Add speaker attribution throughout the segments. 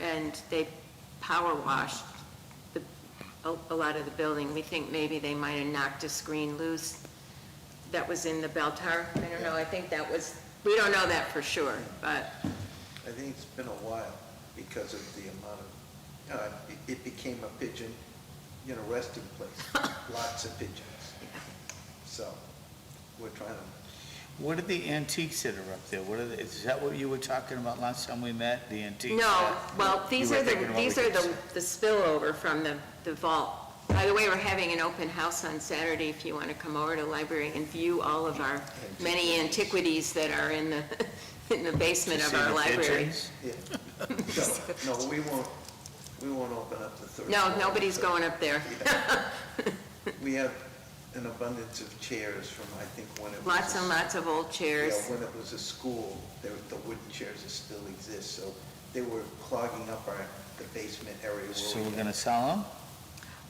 Speaker 1: and they power washed the, a, a lot of the building. We think maybe they might have knocked a screen loose that was in the bell tower. I don't know, I think that was, we don't know that for sure, but,
Speaker 2: I think it's been a while because of the amount of, you know, it- it became a pigeon, you know, resting place, lots of pigeons. So we're trying to,
Speaker 3: What are the antiques that are up there? What are, the- is that what you were talking about last time we met, the antiques?
Speaker 1: no,
Speaker 3: that-
Speaker 1: well, these
Speaker 3: You were
Speaker 1: are the,
Speaker 3: thinking what we
Speaker 1: these are
Speaker 3: could
Speaker 1: the,
Speaker 3: sell.
Speaker 1: the spillover from the, the vault. By the way, we're having an open house on Saturday if you want to come over to the library and view all of our many antiquities that are in the, in the basement
Speaker 3: To
Speaker 1: of
Speaker 3: see
Speaker 1: our
Speaker 3: the
Speaker 1: library.
Speaker 3: pigeons?
Speaker 2: yeah. No, no, we won't, we won't open up the third.
Speaker 1: No,
Speaker 2: floor.
Speaker 1: nobody's going up there.
Speaker 2: We have an abundance of chairs from, I think, when it was.
Speaker 1: Lots and lots of old
Speaker 2: Yeah,
Speaker 1: chairs.
Speaker 2: when it was a school, there, the wooden chairs that still exist, so they were clogging up our, the basement area. where
Speaker 3: So
Speaker 2: we
Speaker 3: we're
Speaker 2: had-
Speaker 3: gonna sell them?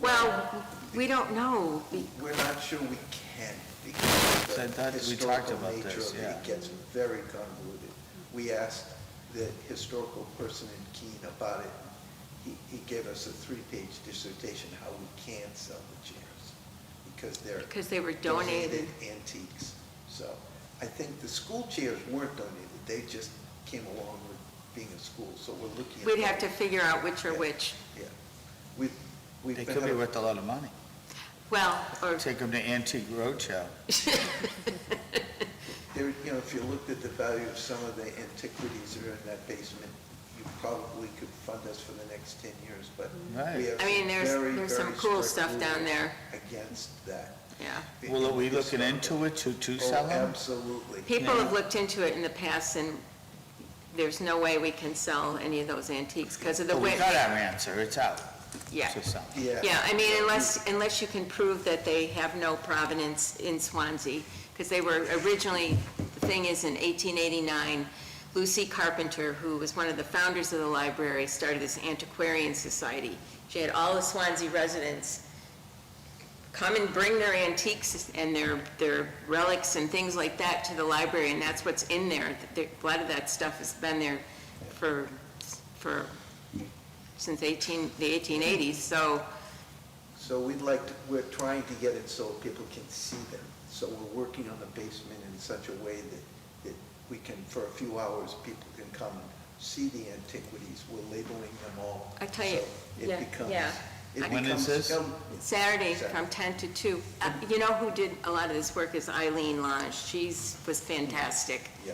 Speaker 1: Well, we don't know. We-
Speaker 2: We're not sure we can because
Speaker 3: So I
Speaker 2: of the
Speaker 3: thought we talked
Speaker 2: historical
Speaker 3: about
Speaker 2: nature
Speaker 3: this,
Speaker 2: of it.
Speaker 3: yeah.
Speaker 2: It gets very convoluted. We asked the historical person in Keene about it. He, he gave us a three-page dissertation how we can sell the chairs because they're.
Speaker 1: Because they were donated.
Speaker 2: Antiques. So I think the school chairs weren't donated. They just came along with being a school, so we're looking. at
Speaker 1: We'd have to
Speaker 2: that.
Speaker 1: figure out which are which.
Speaker 2: Yeah. We've, we've
Speaker 3: They
Speaker 2: been.
Speaker 3: could be
Speaker 2: having-
Speaker 3: worth a lot of money.
Speaker 1: Well, or,
Speaker 3: Take them to Antique Roadshow.
Speaker 2: There, you know, if you looked at the value of some of the antiquities that are in that basement, you probably could fund us for the next 10 years, but
Speaker 3: Right.
Speaker 2: we have
Speaker 1: I mean, there's-
Speaker 2: very,
Speaker 1: there's some
Speaker 2: very
Speaker 1: cool
Speaker 2: strict
Speaker 1: stuff down
Speaker 2: rules
Speaker 1: there.
Speaker 2: Against that.
Speaker 1: yeah.
Speaker 3: Well, are we looking into it to, to
Speaker 2: Oh,
Speaker 3: sell them?
Speaker 2: absolutely.
Speaker 1: People have looked into it in the past, and there's no way we can sell any of those antiques because of the
Speaker 3: But we
Speaker 1: way,
Speaker 3: got our answer, it's out.
Speaker 1: yeah.
Speaker 3: To sell.
Speaker 2: Yeah.
Speaker 1: Yeah, I mean, unless, unless you can prove that they have no provenance in Swansea, because they were originally, the thing is, in 1889, Lucy Carpenter, who was one of the founders of the library, started this antiquarian society. She had all the Swansea residents come and bring their antiques and their, their relics and things like that to the library, and that's what's in there. There- A lot of that stuff has been there for, for, since 18, the 1880s, so...
Speaker 2: So we'd like, to- we're trying to get it so people can see them. So we're working on the basement in such a way that, that we can, for a few hours, people can come and see the antiquities. We're labeling them all.
Speaker 1: I tell you,
Speaker 2: so
Speaker 1: yeah,
Speaker 2: It becomes.
Speaker 1: yeah.
Speaker 2: it
Speaker 3: When is
Speaker 2: becomes-
Speaker 3: this?
Speaker 2: um,
Speaker 1: Saturday from 10 to 2. Uh, You know who did a lot of this work is Eileen Lange. She's, was fantastic.
Speaker 2: Yeah,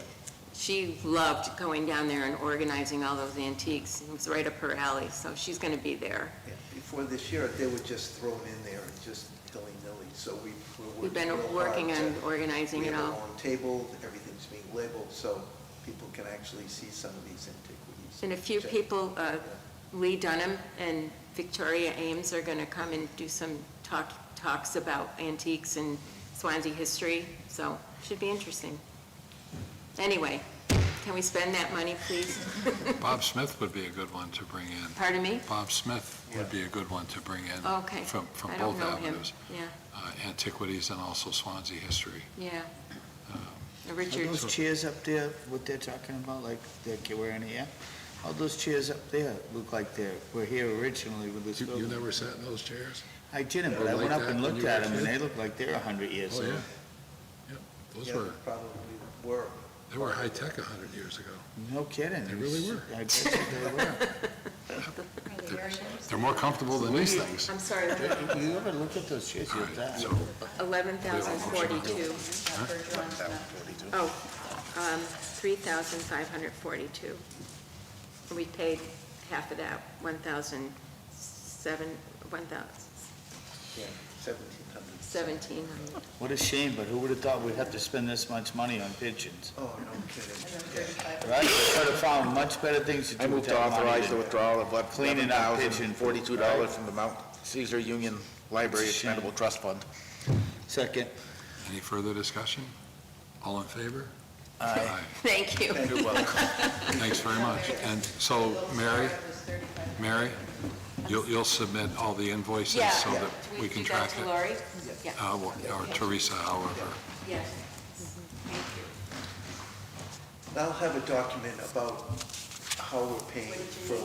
Speaker 1: She loved going down there and organizing all those antiques. It was right up her alley, so she's going to be there.
Speaker 2: yeah. Before this year, they were just thrown in there and just hilly-nilly, so we, we're working.
Speaker 1: We've been
Speaker 2: real hard
Speaker 1: working on
Speaker 2: to-
Speaker 1: organizing
Speaker 2: We
Speaker 1: it
Speaker 2: have our
Speaker 1: all.
Speaker 2: own table, everything's being labeled, so people can actually see some of these antiquities.
Speaker 1: And a few
Speaker 2: Check.
Speaker 1: people, uh,
Speaker 2: Yeah.
Speaker 1: Lee Dunham and Victoria Ames are going to come and do some talk, talks about antiques and Swansea history, so should be interesting. Anyway, can we spend that money, please?
Speaker 4: Bob Smith would be a good one to bring in.
Speaker 1: Pardon me?
Speaker 4: Bob Smith would be a good one to bring in.
Speaker 1: Okay.
Speaker 4: From, from
Speaker 1: I don't
Speaker 4: both
Speaker 1: know him.
Speaker 4: avenues,
Speaker 1: Yeah,
Speaker 4: uh, antiquities and also Swansea history.
Speaker 1: yeah. Uh,
Speaker 3: Are
Speaker 1: Richard,
Speaker 3: those chairs up there, what they're talking about, like they're wearing here? All those chairs up there look like they're, were here originally with this
Speaker 4: You
Speaker 3: building.
Speaker 4: never sat in those chairs?
Speaker 3: I didn't,
Speaker 4: You
Speaker 3: but I
Speaker 4: like
Speaker 3: went up
Speaker 4: that
Speaker 3: and
Speaker 4: when
Speaker 3: looked
Speaker 4: you were a
Speaker 3: at them, and
Speaker 4: kid?
Speaker 3: they look like they're a hundred years
Speaker 4: Oh, yeah.
Speaker 3: old.
Speaker 4: Yep, those
Speaker 2: Yeah,
Speaker 4: were,
Speaker 2: Probably were.
Speaker 4: they were high-tech 100 years ago.
Speaker 3: No kidding.
Speaker 4: They really were.
Speaker 3: I bet you they were.
Speaker 4: They're more comfortable than these things.
Speaker 1: I'm sorry,
Speaker 3: If You ever look at those chairs, you're
Speaker 4: All right,
Speaker 3: that.
Speaker 4: so,
Speaker 1: eleven thousand forty-two. Oh, um, three thousand five hundred forty-two. And we paid half of that, one thousand seven, one thousand
Speaker 2: Yeah, 1700s.
Speaker 1: seventeen hundred.
Speaker 3: What a shame, but who would have thought we'd have to spend this much money on pigeons,
Speaker 2: Oh, no kidding.
Speaker 3: right? Could have found much better things to do
Speaker 5: I
Speaker 3: with
Speaker 5: move to
Speaker 3: that money
Speaker 5: authorize the
Speaker 3: than-
Speaker 5: withdrawal of
Speaker 3: Cleaning up pigeon poop,
Speaker 5: $11,042 from the Mount Caesar Union Library
Speaker 3: Shame.
Speaker 5: Expendable Trust Fund.
Speaker 3: Second.
Speaker 4: any further discussion? All in favor?
Speaker 3: Aye.
Speaker 1: Thank you.
Speaker 5: You're welcome.
Speaker 4: Thanks very much. And so, Mary, Mary, you'll, you'll submit all the invoices
Speaker 1: Yeah.
Speaker 4: so that we can track
Speaker 1: Do
Speaker 4: it?
Speaker 1: that to Lori? Yeah,
Speaker 4: Uh, well, Or Teresa, however.
Speaker 1: yes. Mm-hmm. Thank you.
Speaker 2: I'll have a document about how we're paying for